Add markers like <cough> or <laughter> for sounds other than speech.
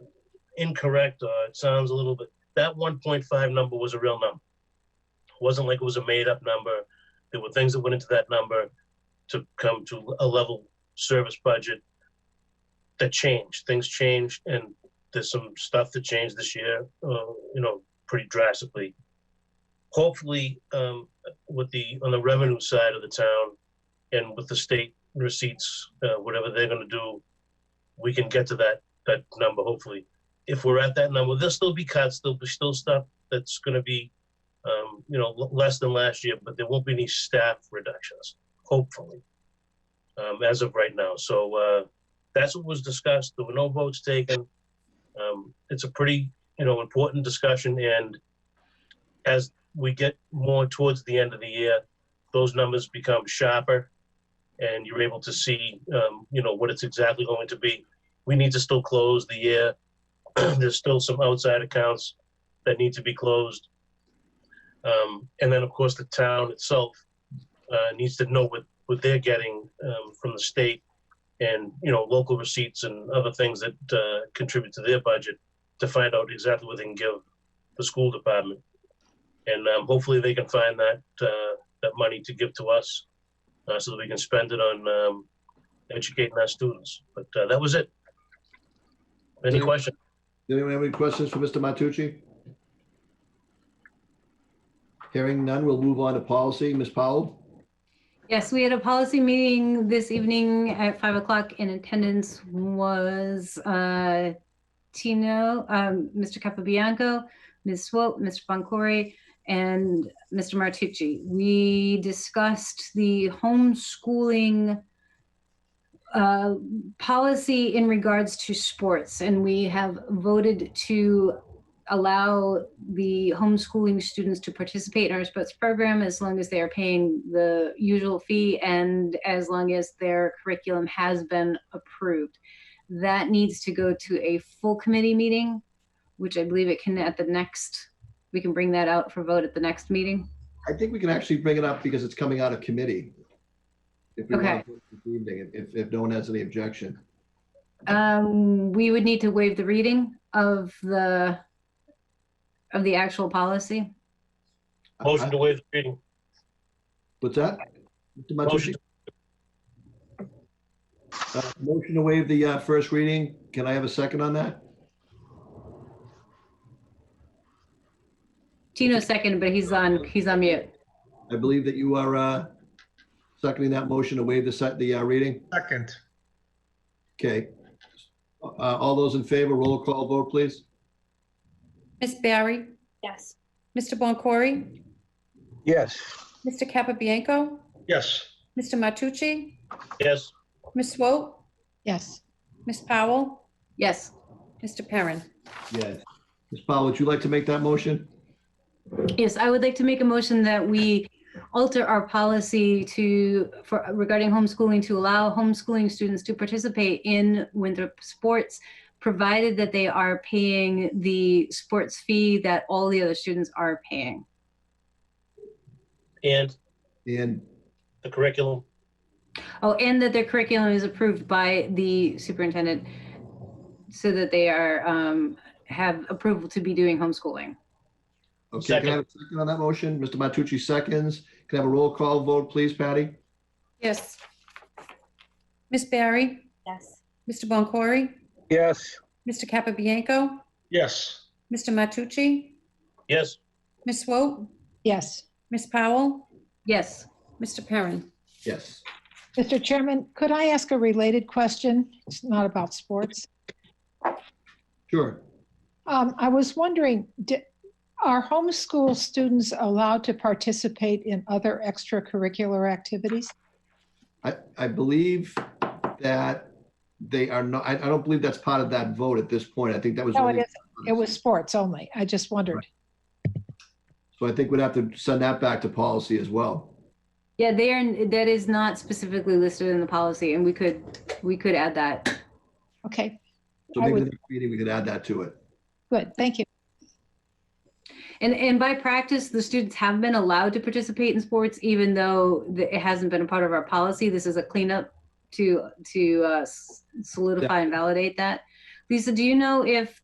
incorrect or it sounds a little bit, that one point five number was a real number. It Wasn't like it was a made-up number. There were things that went into that number to come to a level service budget that changed. Things changed and there's some stuff that changed this year, uh, you know, pretty drastically. Hopefully, um, with the, on the revenue side of the town and with the state receipts, uh, whatever they're gonna do, we can get to that, that number hopefully. If we're at that number, there'll still be cuts, there'll be still stuff that's gonna be, um, you know, l- less than last year, but there won't be any staff reductions, hopefully. Um, as of right now, so, uh, that's what was discussed, there were no votes taken. Um, it's a pretty, you know, important discussion and as we get more towards the end of the year, those numbers become sharper and you're able to see, um, you know, what it's exactly going to be. We need to still close the year. <clears throat> There's still some outside accounts that need to be closed. Um, and then, of course, the town itself uh, needs to know what, what they're getting um, from the state and, you know, local receipts and other things that uh, contribute to their budget to find out exactly what they can give the school department. And um, hopefully they can find that, uh, that money to give to us uh, so that we can spend it on um, educating our students. But uh, that was it. Any Yeah. questions? Anyone have any questions for Mr. Matucci? Hearing none, we'll move on to policy. Ms. Powell? Yes, we had a policy meeting this evening at five o'clock in attendance was uh, Tino, um, Mr. Capabianco, Ms. Swope, Mr. Boncory, and Mr. Martucci. We discussed the homeschooling uh, policy in regards to sports, and we have voted to allow the homeschooling students to participate in our sports program as long as they are paying the usual fee and as long as their curriculum has been approved. That needs to go to a full committee meeting, which I believe it can at the next, we can bring that out for vote at the next meeting. I think we can actually bring it up because it's coming out of committee. If we Okay. want to, this evening, if, if no one has any objection. Um, we would need to waive the reading of the, of the actual policy. Motion to waive the reading. What's that? Mr. Motion. Matucci? Uh, Motion to waive the uh, first reading. Can I have a second on that? Tino second, but he's on, he's on mute. I believe that you are uh, seconding that motion to waive the, se- the uh, reading. Second, Okay. Uh, All those in favor, roll call vote, please. Miss Barry? Yes. Mr. Boncory? Yes, Mr. Capabianco? yes, Mr. Matucci? Yes, Miss Swope? Yes. Miss Powell? Yes. Mr. Perrin? Yes. Ms. Powell, would you like to make that motion? Yes, I would like to make a motion that we alter our policy to, for regarding homeschooling, to allow homeschooling students to participate in Winthrop sports, provided that they are paying the sports fee that all the other students are paying. and And the curriculum. Oh, and that their curriculum is approved by the superintendent so that they are, um, have approval to be doing homeschooling. Okay, can I have a second on that motion? Mr. Matucci seconds. Can I have a roll call vote, please, Patty? Yes. Miss Barry? Yes. Mr. Boncory? yes, Mr. Capabianco? yes, Mr. Matucci? Yes, Miss Swope? Yes. Miss Powell? Yes, Mr. Perrin? Yes. Mr. Chairman, could I ask a related question? It's not about sports. Sure. Um, I was wondering, di- are homeschool students allowed to participate in other extracurricular activities? I, I believe that they are not, I, I don't believe that's part of that vote at this point. I think that was. No, it only- isn't. It was sports only. I just wondered. So I think we'd have to send that back to policy as well. yeah, they are, that is not specifically listed in the policy and we could, we could add that. Okay, So I maybe the would- next meeting, we could add that to it. good. Thank you. And, and by practice, the students have been allowed to participate in sports, even though the- it hasn't been a part of our policy. This is a cleanup to, to uh, s- solidify and validate that. Lisa, do you know if